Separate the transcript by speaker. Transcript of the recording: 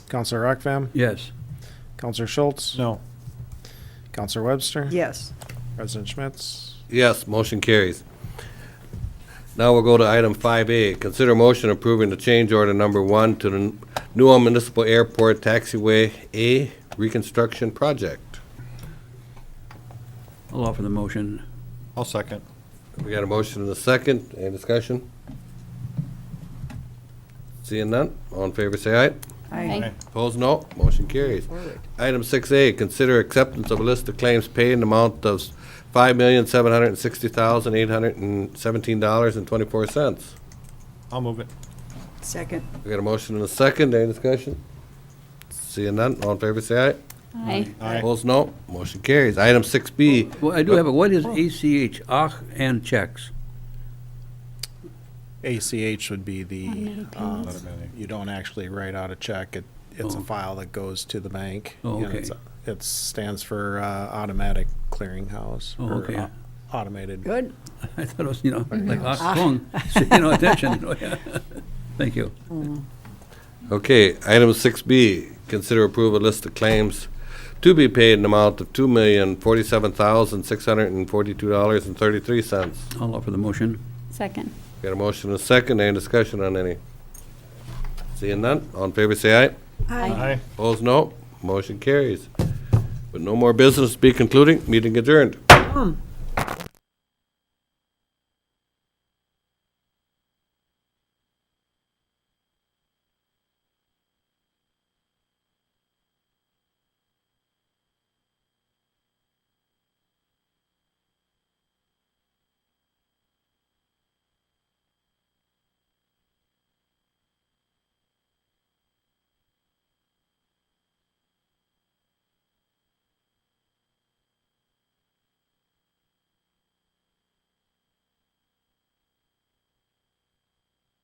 Speaker 1: Counselor Rockvam,
Speaker 2: Yes.
Speaker 1: Counselor Schultz,
Speaker 2: No.
Speaker 1: Counselor Webster,
Speaker 3: Yes.
Speaker 1: President Schmitz.
Speaker 4: Yes, motion carries. Now we'll go to item 5A, consider motion approving the change order number one to the Newell Municipal Airport Taxiway A reconstruction project.
Speaker 2: I'll offer the motion.
Speaker 5: I'll second.
Speaker 4: We got a motion and a second, any discussion? Seeing none, all in favor say aye.
Speaker 3: I
Speaker 4: Opposed, no. Motion carries. Item six A, consider acceptance of a list of claims paid in the amount of five million, seven hundred and sixty thousand, eight hundred and seventeen dollars and twenty-four cents.
Speaker 5: I'll move it.
Speaker 3: Second.
Speaker 4: We got a motion and a second. Any discussion? Seeing none. All in favor, say
Speaker 6: Aye.
Speaker 4: aye. Opposed, no. Motion carries. Item six B,
Speaker 2: Well, I do have, a what is ACH, ach and checks?
Speaker 1: ACH would be the,
Speaker 6: Automatic
Speaker 1: um,
Speaker 6: payments.
Speaker 1: you don't actually write out a check. It, it's a
Speaker 2: Oh.
Speaker 1: file that goes to the bank.
Speaker 2: Oh,
Speaker 1: and
Speaker 2: okay.
Speaker 1: it's- It stands for uh, automatic clearinghouse.
Speaker 2: Oh,
Speaker 1: or
Speaker 2: okay.
Speaker 1: au- Automated.
Speaker 3: Good.
Speaker 2: I thought it was, you know, like ach kong, so, you know, attention. you know, yeah. Thank you.
Speaker 4: okay. Item six B, consider approval of list of claims to be paid in the amount of two million, forty-seven thousand, six hundred and forty-two dollars and thirty-three cents.
Speaker 2: I'll offer the motion.
Speaker 6: Second.
Speaker 4: Got a motion and a second, any discussion on any? Seeing none, all in favor say aye.
Speaker 5: Aye.
Speaker 4: Opposed, no. Motion carries. With no more business to be concluding, meeting adjourned.